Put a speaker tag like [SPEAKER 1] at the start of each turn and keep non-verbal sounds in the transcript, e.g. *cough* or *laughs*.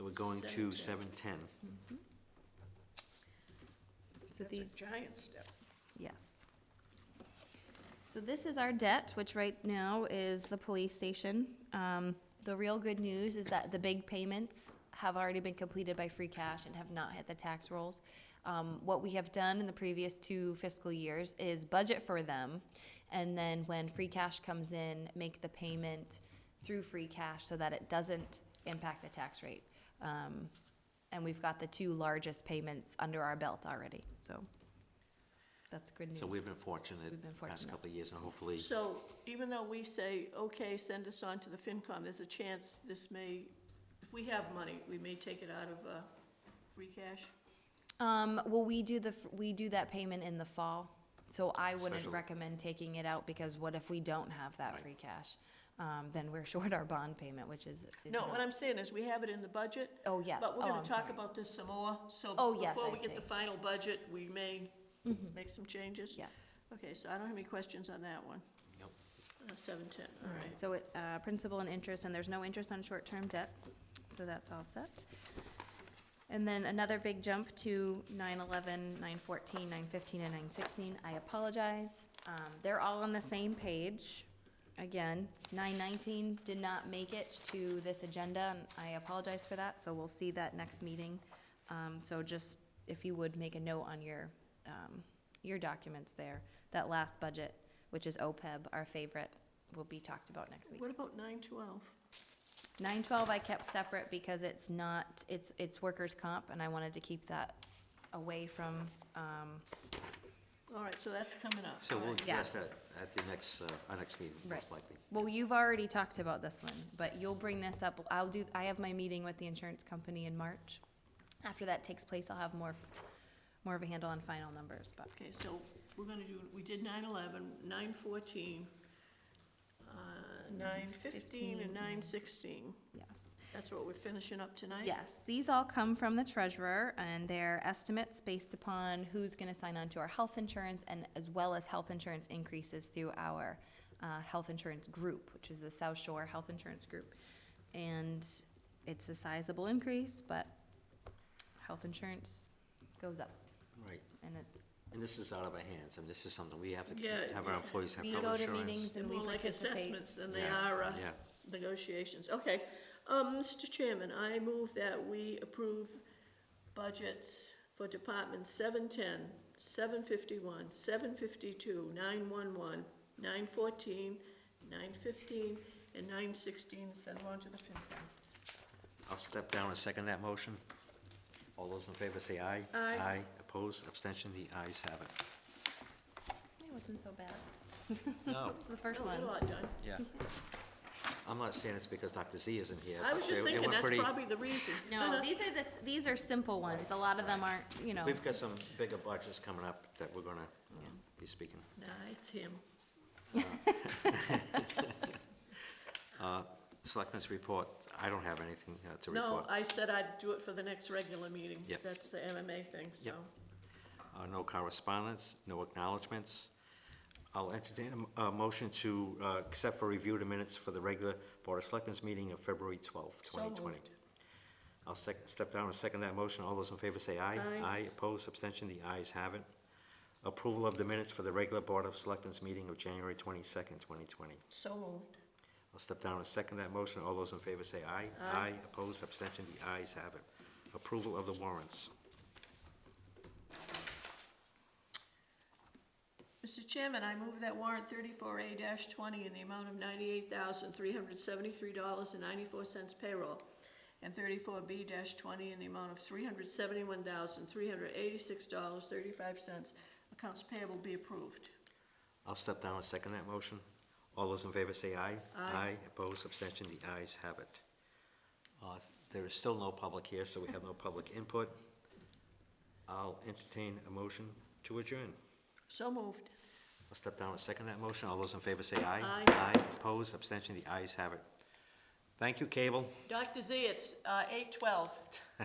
[SPEAKER 1] we're going to seven ten.
[SPEAKER 2] So these,
[SPEAKER 3] giant step.
[SPEAKER 2] yes. So this is our debt, which right now is the police station. Um, the real good news is that the big payments have already been completed by free cash and have not hit the tax rolls. Um, what we have done in the previous two fiscal years is budget for them, and then when free cash comes in, make the payment through free cash so that it doesn't impact the tax rate. Um, and we've got the two largest payments under our belt already, so that's good news.
[SPEAKER 1] So we've been fortunate
[SPEAKER 2] We've been
[SPEAKER 1] the past
[SPEAKER 2] fortunate.
[SPEAKER 1] couple of years, and hopefully,
[SPEAKER 3] So even though we say, okay, send us on to the FinCom, there's a chance this may, if we have money, we may take it out of, uh, free cash.
[SPEAKER 2] Um, well, we do the, f- we do that payment in the fall, so I wouldn't
[SPEAKER 1] Special.
[SPEAKER 2] recommend taking it out, because what if we don't have that
[SPEAKER 1] Right.
[SPEAKER 2] free cash? Um, then we're *laughs* short our bond payment, which is, is
[SPEAKER 3] No,
[SPEAKER 2] not-
[SPEAKER 3] what I'm saying is, we have it in the budget.
[SPEAKER 2] Oh, yes.
[SPEAKER 3] But we're
[SPEAKER 2] Oh,
[SPEAKER 3] gonna
[SPEAKER 2] I'm
[SPEAKER 3] talk
[SPEAKER 2] sorry.
[SPEAKER 3] about this some more, so.
[SPEAKER 2] Oh, yes,
[SPEAKER 3] Before
[SPEAKER 2] I
[SPEAKER 3] we get the
[SPEAKER 2] see. Mm-hmm.
[SPEAKER 3] final budget, we may make some changes.
[SPEAKER 2] Yes.
[SPEAKER 3] Okay, so I don't have any questions on that one,
[SPEAKER 1] Nope.
[SPEAKER 3] uh, seven-ten, all right.
[SPEAKER 2] So it, uh, principal and interest, and there's no interest on short-term debt, so that's all set. And then another big jump to nine eleven, nine fourteen, nine fifteen, and nine sixteen, I apologize. Um, they're all on the same page. Again, nine nineteen did not make it to this agenda, and I apologize for that, so we'll see that next meeting. Um, so just, if you would, make a note on your, um, your documents there, that last budget, which is OPEB, our favorite, will be talked about next week.
[SPEAKER 3] What about nine-twelve?
[SPEAKER 2] Nine twelve I kept separate because it's not, it's, it's workers' comp, and I wanted to keep that away from, um,
[SPEAKER 3] All right, so that's coming up.
[SPEAKER 1] so
[SPEAKER 3] all
[SPEAKER 1] we'll
[SPEAKER 3] right.
[SPEAKER 1] address
[SPEAKER 2] Yes.
[SPEAKER 1] that at the next, uh, our next meeting, most
[SPEAKER 2] Right.
[SPEAKER 1] likely.
[SPEAKER 2] Well, you've already talked about this one, but you'll bring this up, I'll do, I have my meeting with the insurance company in March. After that takes place, I'll have more, more of a handle on final numbers, but,
[SPEAKER 3] Okay, so we're gonna do, we did nine eleven, nine fourteen, uh, nine fifteen, and nine sixteen.
[SPEAKER 2] yes.
[SPEAKER 3] That's what we're finishing up tonight?
[SPEAKER 2] Yes, these all come from the treasurer and their estimates based upon who's gonna sign on to our health insurance and as well as health insurance increases through our, uh, health insurance group, which is the South Shore Health Insurance Group. And it's a sizable increase, but health insurance goes up
[SPEAKER 1] Right,
[SPEAKER 2] and it,
[SPEAKER 1] and this is out of our hands, and this is something we have
[SPEAKER 3] Yeah,
[SPEAKER 1] to have our
[SPEAKER 3] yeah.
[SPEAKER 1] employees have
[SPEAKER 2] we
[SPEAKER 1] health
[SPEAKER 2] go to
[SPEAKER 1] insurance.
[SPEAKER 2] meetings
[SPEAKER 3] They're
[SPEAKER 2] and we
[SPEAKER 3] more like
[SPEAKER 2] participate.
[SPEAKER 3] assessments than they
[SPEAKER 1] Yeah,
[SPEAKER 3] are uh,
[SPEAKER 1] yeah.
[SPEAKER 3] negotiations. Okay, um, Mr. Chairman, I move that we approve budgets for Department seven-ten, seven-fifty-one, seven-fifty-two, nine-one-one, nine-fourteen, nine-fifteen, and nine-sixteen, send them on to the FinCom.
[SPEAKER 1] I'll step down and second that motion. All those in favor say aye.
[SPEAKER 3] Aye.
[SPEAKER 1] Aye, opposed, abstention, the ayes have it.
[SPEAKER 2] It wasn't so bad.
[SPEAKER 1] *laughs* No,
[SPEAKER 2] It's the first
[SPEAKER 3] Oh,
[SPEAKER 2] one.
[SPEAKER 3] A lot done.
[SPEAKER 1] yeah. I'm not saying it's because Dr. Z isn't here.
[SPEAKER 3] I
[SPEAKER 1] but
[SPEAKER 3] was just
[SPEAKER 1] they- they
[SPEAKER 3] thinking,
[SPEAKER 1] went
[SPEAKER 3] that's
[SPEAKER 1] pretty-
[SPEAKER 3] probably the reason.
[SPEAKER 2] *laughs* No, these are the, s- these are simple ones. A lot of them aren't, you know.
[SPEAKER 1] We've got some bigger budgets coming up that we're gonna uh, be speaking.
[SPEAKER 3] Nah, it's him.
[SPEAKER 1] Selectmen's report, I don't have anything uh, to
[SPEAKER 3] No,
[SPEAKER 1] report.
[SPEAKER 3] I said I'd do it for the next regular meeting.
[SPEAKER 1] Yep.
[SPEAKER 3] That's the MMA thing, so.
[SPEAKER 1] Yep. Uh, No correspondence, no acknowledgements. I'll entertain a m- a motion to uh, accept for review the minutes for the regular Board of Selectmen's meeting of February twelfth,
[SPEAKER 3] So
[SPEAKER 1] twenty twenty.
[SPEAKER 3] moved.
[SPEAKER 1] I'll sec- step down and second that motion. All those in favor say aye.
[SPEAKER 3] Aye.
[SPEAKER 1] opposed, abstention, the ayes have it. Approval of the minutes for the regular Board of Selectmen's meeting of January twenty-second, twenty twenty.
[SPEAKER 3] So moved.
[SPEAKER 1] I'll step down and second that motion. All those in favor say aye. Aye. Opposed, abstention, the ayes have it. Approval of the warrants.
[SPEAKER 3] Mr. Chairman, I move that warrant thirty-four A twenty in the amount of ninety-eight thousand, three hundred seventy-three dollars and ninety-four cents payroll, and thirty-four B twenty in the amount of three hundred seventy-one thousand, three hundred eighty-six dollars, thirty-five cents. Accounts payable be approved.
[SPEAKER 1] I'll step down and second that motion. All those in favor say aye.
[SPEAKER 3] Aye.
[SPEAKER 1] opposed, abstention, the ayes have it. Uh, There is still no public here, so we have no public input. I'll entertain a motion to adjourn.
[SPEAKER 3] So moved.
[SPEAKER 1] I'll step down and second that motion. All those in favor say aye.
[SPEAKER 3] Aye.
[SPEAKER 1] opposed, abstention, the ayes have it. Thank you, Cable.
[SPEAKER 3] Dr. Z, it's, uh, eight twelve.